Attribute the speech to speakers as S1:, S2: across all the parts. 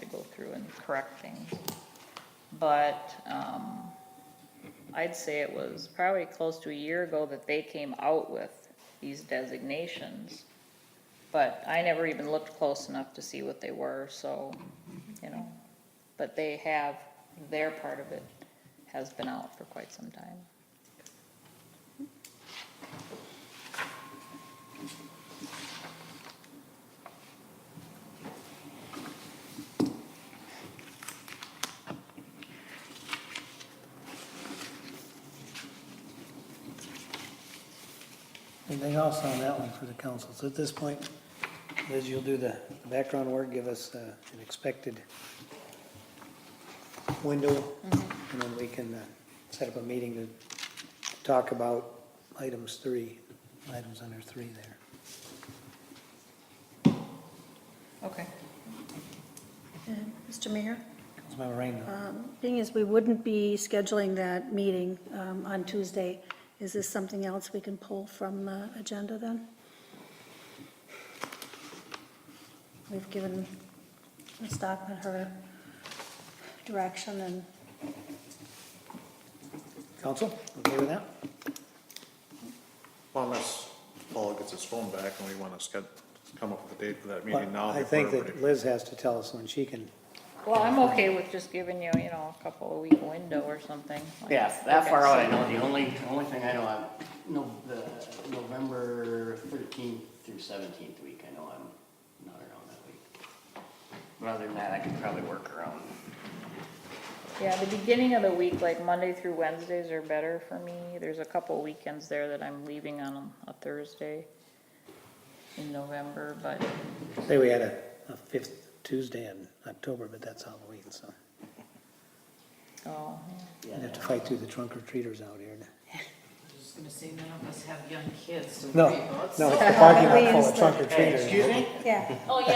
S1: to go through and correct things. But, um, I'd say it was probably close to a year ago that they came out with these designations. But I never even looked close enough to see what they were, so, you know, but they have, their part of it has been out for quite some time.
S2: Anything else on that one for the council? So at this point, Liz, you'll do the background work, give us uh, an expected window, and then we can uh, set up a meeting to talk about items three, items under three there.
S1: Okay.
S3: Um, Mr. Mayor,
S2: Councilmember Rainville,
S3: um, thing is, we wouldn't be scheduling that meeting um, on Tuesday. Is this something else we can pull from the agenda then? We've given Ms. Stockman her direction and
S2: council, okay with that?
S4: Well, Unless Paul gets his phone back and we want to sched, come up with a date for that meeting now.
S2: Well, I
S4: before
S2: think that
S4: everybody-
S2: Liz has to tell us when she can,
S1: Well, I'm okay with just giving you, you know, a couple of week window or something. like-
S5: Yeah, that far out,
S1: Okay,
S5: I know, the only, only thing I know, I'm, no, the November thirteenth through seventeenth week, I know I'm not around that week. But other than that, I could probably work around.
S1: so- Yeah, the beginning of the week, like Monday through Wednesdays are better for me. There's a couple of weekends there that I'm leaving on a Thursday in November, but
S2: say we had a a fifth Tuesday in October, but that's Halloween, so
S1: Oh, yeah.
S2: we'd have to fight through the trunk or treaters out here.
S6: I was just gonna say, none of us have young kids to
S2: No,
S6: worry about.
S2: no,
S6: so-
S2: it's the parking lot
S3: We
S2: full
S3: use
S2: of
S3: the-
S2: trunk or treaters.
S5: me?
S3: Yeah.
S1: Oh, yeah.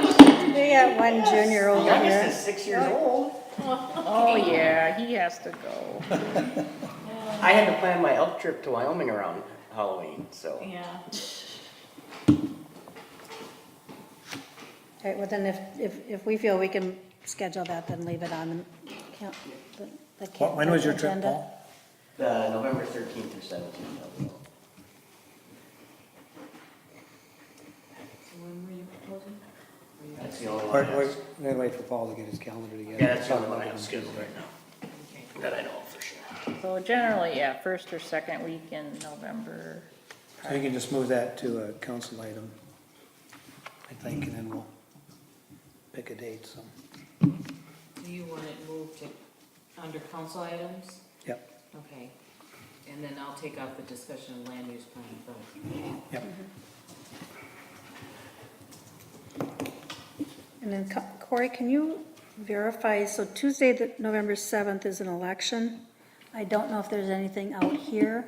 S3: we got one junior over
S5: Youngest
S3: here.
S5: is six years old.
S1: Oh, yeah, he has to go.
S5: I had to plan my elk trip to Wyoming around Halloween, so.
S6: Yeah.
S3: All right, well then if, if, if we feel we can schedule that, then leave it on the count- the, the
S2: Wh- When was your trip,
S3: agenda.
S2: Paul?
S5: The Uh, November thirteenth through seventeenth, I'll go.
S6: So When were you proposing? Were you-
S5: that's the only
S2: We're,
S5: one. I
S2: we're
S5: have-
S2: gonna wait for Paul to get his calendar together.
S5: Yeah, that's the only one I have scheduled right now,
S6: Okay.
S5: that I know of for sure.
S1: So generally, yeah, first or second week in November.
S2: So you can just move that to a council item, I think, and then we'll pick a date, so,
S6: Do you want it moved to, under council items?
S2: yep,
S6: Okay. And then I'll take out the discussion of land use plan from.
S2: yep.
S3: And then Co- Corey, can you verify, so Tuesday, the- November 7th is an election. I don't know if there's anything out here.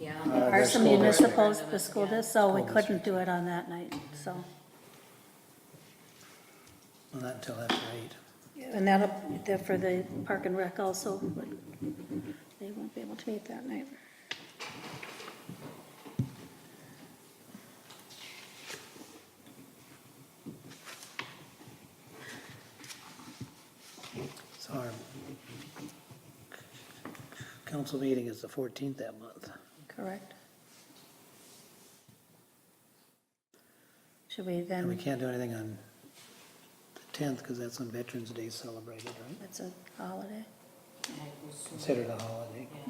S6: Yeah.
S2: Uh,
S3: There are
S2: there's
S3: some
S2: school district.
S3: municipals, the school
S6: Yeah.
S3: does, so we
S2: School
S3: couldn't do it on that night, so.
S2: Well, Not until after eight.
S3: And that'll, that for the park and rec also, but they won't be able to meet that night.
S2: So our council meeting is the fourteenth that month.
S3: Correct. Should we
S2: And we
S3: then,
S2: can't do anything on the tenth, because that's when Veterans Day is celebrated, right?
S3: that's a holiday?
S2: Considered a holiday,
S6: Yeah.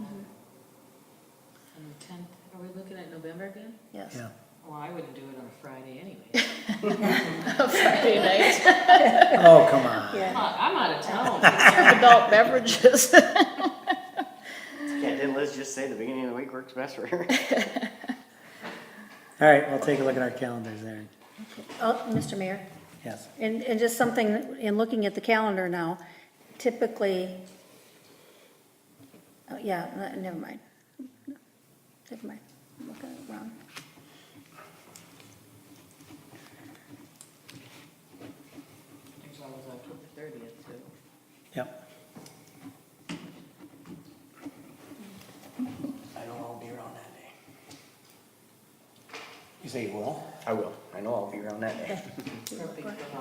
S6: On the tenth, are we looking at November again?
S3: Yes.
S2: yeah.
S6: Well, I wouldn't do it on a Friday anyway.
S1: Friday night,
S2: Oh, come on.
S3: Yeah.
S6: I'm out of town.
S1: adult beverages.
S5: Yeah, didn't Liz just say the beginning of the week works best for her?
S2: All right, we'll take a look at our calendars there,
S3: Oh, Mr. Mayor?
S2: yes.
S3: And, and just something, in looking at the calendar now, typically, oh, yeah, ne- never mind. Never mind, I'm looking at it wrong.
S6: There's always October thirtieth too.
S2: Yep,
S5: I know I'll be around that day.
S2: you say you will?
S5: I will. I know I'll be around that day.
S6: Perfect for